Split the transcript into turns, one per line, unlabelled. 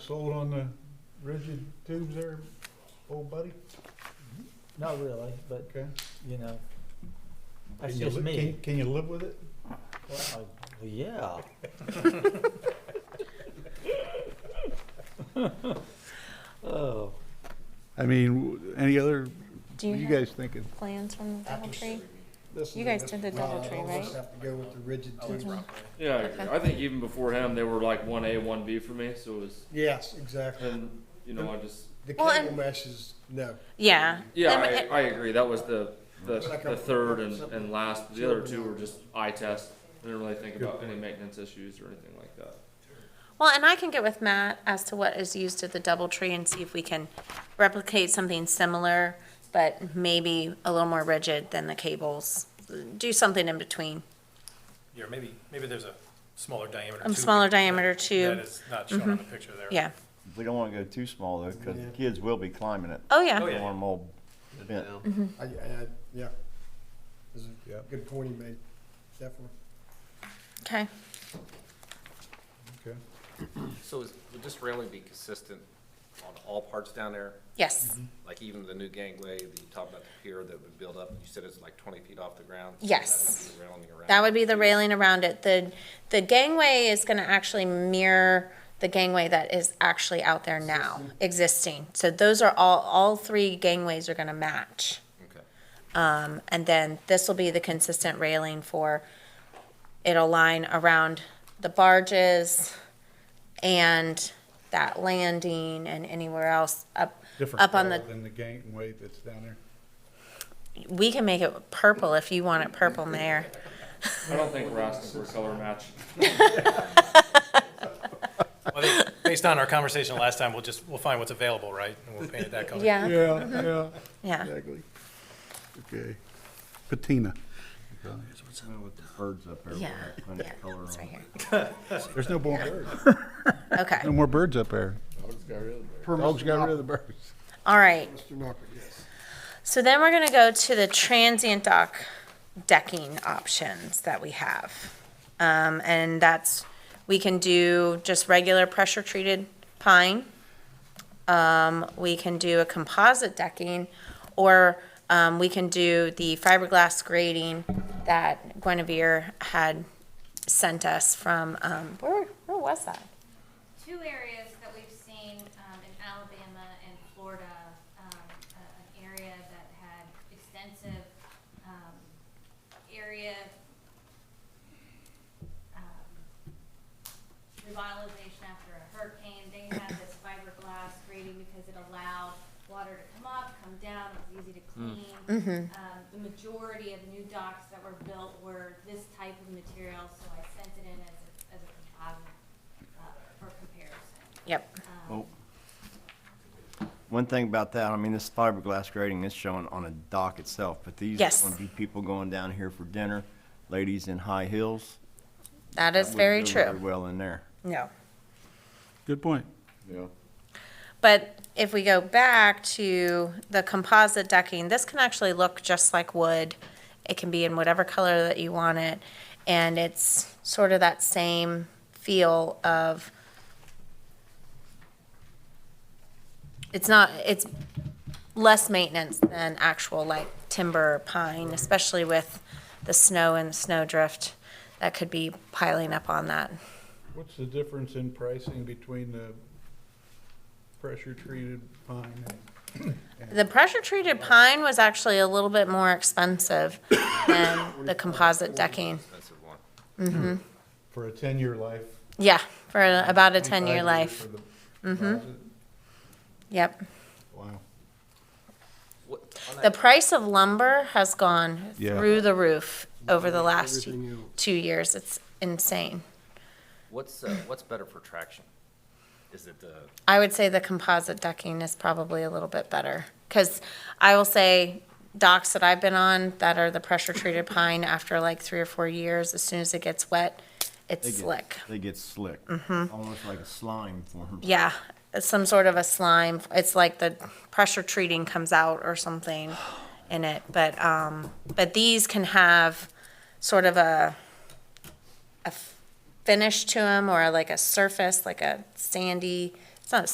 sold on the rigid tubes there, old buddy?
Not really, but,
Okay.
you know, that's
Can you
just
li-
me.
can- Can you live with it?
Well, I- Yeah. Oh,
I mean, w- any other,
Do
what you
you, have
guys thinking?
plans from the DoubleTree?
This
You
is
guys
it.
did the
Well,
DoubleTree,
we'll just
right?
Have to go with the rigid tube.
Yeah, I agree.
Okay.
I think even before him, they were like one A, one B for me. So it was,
Yes, exactly.
and you know, I just
The
Well,
cable
and-
mesh is, no.
Yeah.
yeah,
Them-
I, I agree. That was the the,
It's like a-
the third and, and last. The other two were just eye test. I didn't really think about any maintenance issues or anything like that.
Well, and I can get with Matt as to what is used at the DoubleTree and see if we can replicate something similar, but maybe a little more rigid than the cables. Do something in between.
Yeah, maybe, maybe there's a smaller diameter.
A
tube
Um, smaller
that-
diameter tube.
That is not shown on the picture there.
Yeah.
We don't want to go too small though, because
Yeah.
kids will be climbing it.
Oh, yeah.
Oh, yeah.
One more bent.
I, I, I- yeah. This is a
Yep.
good point he made, definitely.
Okay.
Okay.
So is, would this railing be consistent on all parts down there?
Yes.
Like even the new gangway that you talked about the pier that would build up, you said it's like twenty feet off the ground? So that would
Yes.
be the railing around
That would be the railing around it. The, the gangway is gonna actually mirror the gangway that is actually out there now, existing. So those are all, all three gangways are gonna match.
Okay.
Um, and then this will be the consistent railing for, it'll line around the barges and that landing and anywhere else up,
Different
up on
color
the,
Than the gangway that's down there.
we can make it purple if you want it purple, Mayor.
I don't think we're asking for a color match.
I think Based on our conversation last time, we'll just, we'll find what's available, right? And we'll paint it that color.
Yeah,
Yeah, yeah,
Mm-hmm. yeah.
exactly. Okay. Patina.
Now With the birds up there, we'll
Yeah,
have plenty
yeah,
of color
it's
on
right
it.
here.
There's no more birds,
Okay,
no more birds up there. Dogs got rid of the birds.
all right.
Mr. Knocker, yes.
So then we're gonna go to the transient dock decking options that we have. Um, and that's, we can do just regular pressure treated pine. Um, we can do a composite decking, or, um, we can do the fiberglass grating that Guinevere had sent us from, um, where, where was that?
two areas that we've seen um, in Alabama and Florida, um, a- an area that had extensive um, area um, revitalization after a hurricane. They had this fiberglass grating because it allowed water to come up, come down, it was easy to clean. Um, the majority of new docks that were built were this type of material, so I sent it in as a, as a composite uh, for comparison.
Yep,
Well, One thing about that, I mean, this fiberglass grating is shown on a dock itself, but these
Yes.
are going to be people going down here for dinner, ladies in high heels.
that
That
is
wouldn't
very
do very
true,
Well in there.
no.
Good point.
Yeah.
But if we go back to the composite decking, this can actually look just like wood. It can be in whatever color that you want it, and it's sort of that same feel of it's not it's less maintenance than actual like timber or pine, especially with the snow and the snow drift that could be piling up on that.
What's the difference in pricing between the pressure treated pine and
The pressure treated pine was actually a little bit more expensive than the composite decking.
Expensive one.
for a ten-year life?
Yeah, for Uh, about a 10 year
25
life.
for
Mm-hmm.
the composite?
Yep.
Wow.
What, on
The
that,
price of lumber has gone
Yeah.
through the roof over the last
Everything else.
two years. It's insane.
what's, uh, what's better for traction? Is it the,
I would say the composite decking is probably a little bit better because I will say docks that I've been on that are the pressure treated pine after like three or four years, as soon as it gets wet, it's
They get-
slick.
They get slick. Mm-hmm. Almost like a slime forms.
Yeah, it's some sort of a slime. It's like the pressure treating comes out or something in it. But um, but these can have sort of a a finish to them or like a surface, like a sandy